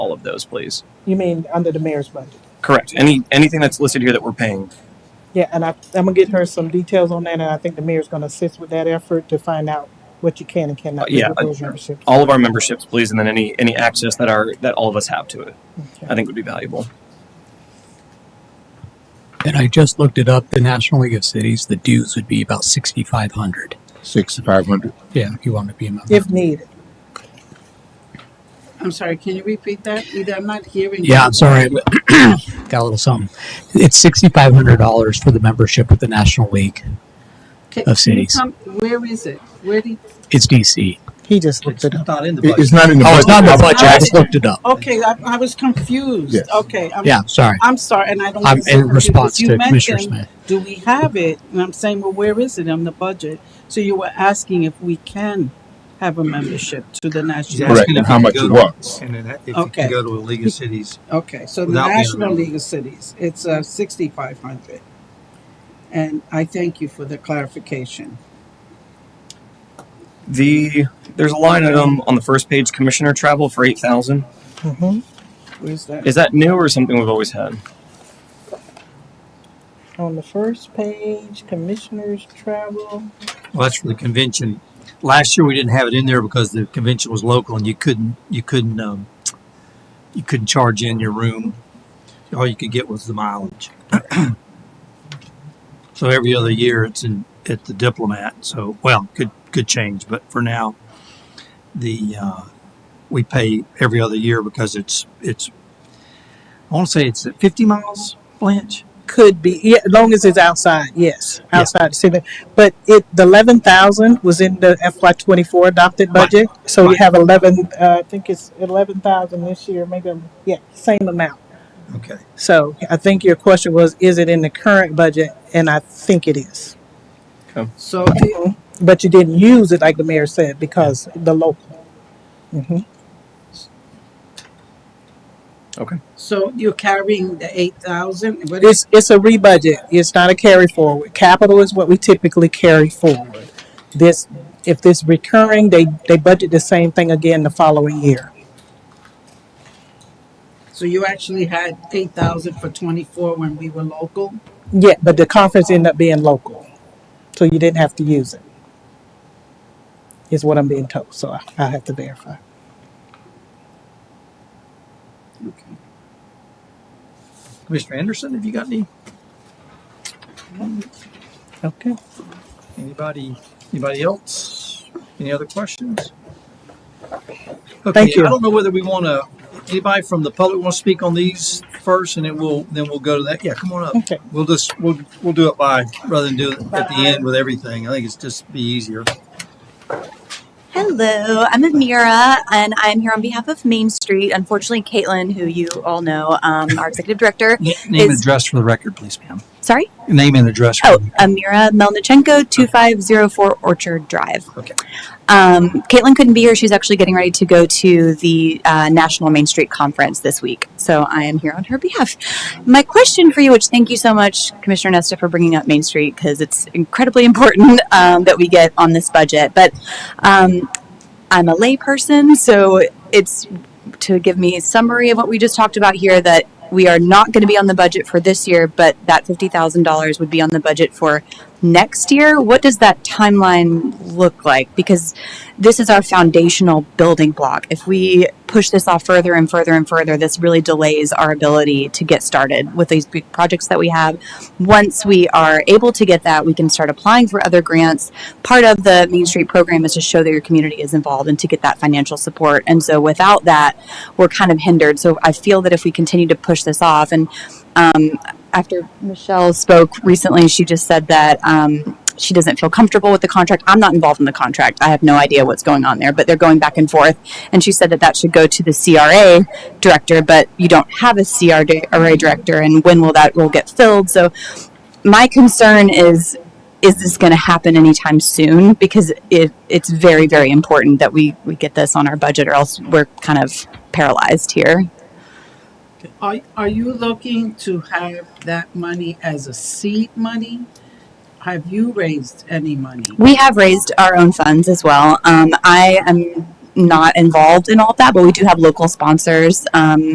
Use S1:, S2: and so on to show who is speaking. S1: all of those, please.
S2: You mean under the mayor's budget?
S1: Correct. Any anything that's listed here that we're paying.
S2: Yeah, and I, I'm gonna get her some details on that, and I think the mayor's gonna assist with that effort to find out what you can and cannot do
S1: Uh, Yeah,
S2: with
S1: I-
S2: those memberships.
S1: All of our memberships, please, and then any any access that our that all of us have to it.
S2: Okay.
S1: I think would be valuable.
S3: And I just looked it up. The National League of Cities, the dues would be about sixty-five hundred.
S4: Sixty-five hundred.
S3: Yeah, if you want to be a member.
S2: If needed,
S5: I'm sorry, can you repeat that? Either I'm not hearing.
S3: yeah,
S5: you.
S3: I'm sorry, got a little something. It's sixty-five hundred dollars for the membership with the National League.
S5: Can-
S3: of cities.
S5: can you come- Where is it? Where do,
S3: It's DC.
S2: he just looked it up.
S6: not in the
S4: It, it's not in the.
S3: Oh, it's not in the
S4: budget.
S3: budget. I just looked it up.
S5: okay, I, I was confused.
S4: Yes.
S5: Okay. I'm-
S3: Yeah, sorry.
S5: I'm sorry, and I don't.
S3: I'm
S5: want to
S3: in
S5: sound confused,
S3: response
S5: because you
S3: to Commissioner
S5: mentioned,
S3: Smith.
S5: Do we have it? And I'm saying, well, where is it on the budget? So you were asking if we can have a membership to the national.
S4: Correct. And how much it was.
S6: And then if you
S5: Okay.
S6: can go to a League of Cities,
S5: Okay, so the
S6: Without being a
S5: National
S6: member.
S5: League of Cities, it's uh, sixty-five hundred. And I thank you for the clarification.
S1: The there's a line item on the first page, commissioner travel for eight thousand.
S2: hmm
S5: Where's that?
S1: Is that new or something we've always had?
S2: On the first page, commissioners travel.
S6: well, that's for the convention. Last year, we didn't have it in there because the convention was local and you couldn't, you couldn't, um, you couldn't charge in your room. All you could get was the mileage. So every other year, it's in, at the Diplomat. So, well, could, could change, but for now, the, uh, we pay every other year because it's, it's, I want to say it's at fifty miles, Blanche?
S2: Could be, yeah, as long as it's outside, yes, outside the city. But it, the eleven thousand was in the FY twenty-four adopted budget, so you
S6: Right.
S2: have eleven, uh, I think it's eleven thousand this year, maybe, I'm- yeah, same amount.
S6: Okay.
S2: So I think your question was, is it in the current budget? And I think it is.
S5: So the
S2: But you didn't use it, like the mayor said, because the local. Mhm.
S5: So you're carrying the eight thousand, but it's
S2: It's, it's a rebudget. It's not a carry forward. Capital is what we typically carry forward. This, if this recurring, they, they budget the same thing again the following year.
S5: so you actually had eight thousand for twenty-four when we were local.
S2: Yeah, but the conference ended up being local, so you didn't have to use it. Is what I'm being told, so I, I have to verify.
S5: Okay.
S6: Commissioner Anderson, have you got any,
S2: Okay.
S6: anybody, anybody else? Any other questions?
S2: Thank
S6: Okay,
S2: you.
S6: I don't know whether we want to, anybody from the public want to speak on these first and then we'll, then we'll go to that. Yeah, come on up.
S2: Okay.
S6: We'll just, we'll, we'll do it by, rather than do it at the end with everything. I think it's just be easier.
S7: Hello, I'm Amira, and I'm here on behalf of Main Street. Unfortunately, Caitlin, who you all know, um, our executive director.
S6: Na- Name and
S7: Is-
S6: address for the record, please, ma'am.
S7: Sorry.
S6: Name and address. for
S7: Oh,
S6: the-
S7: Amira Melnichenko, 2504 Orchard Drive.
S6: Okay.
S7: Um, Caitlin couldn't be here. She's actually getting ready to go to the uh, National Main Street Conference this week. So I am here on her behalf. My question for you, which thank you so much, Commissioner Nesta, for bringing up Main Street, because it's incredibly important um, that we get on this budget. But um, I'm a layperson, so it's to give me a summary of what we just talked about here that we are not going to be on the budget for this year, but that $50,000 would be on the budget for next year. What does that timeline look like? Because this is our foundational building block. If we push this off further and further and further, this really delays our ability to get started with these big projects that we have. Once we are able to get that, we can start applying for other grants. Part of the Main Street program is to show that your community is involved and to get that financial support. And so without that, we're kind of hindered. So I feel that if we continue to push this off, and um, after Michelle spoke recently, she just said that um, she doesn't feel comfortable with the contract. I'm not involved in the contract. I have no idea what's going on there, but they're going back and forth. And she said that that should go to the CRA director, but you don't have a CRA director, and when will that role get filled? So my concern is. Is this going to happen anytime soon? Because it, it's very, very important that we, we get this on our budget, or else we're kind of paralyzed here.
S5: Are, are you looking to have that money as a seed money? Have you raised any money?
S7: We have raised our own funds as well. Um, I am not involved in all of that, but we do have local sponsors. Um,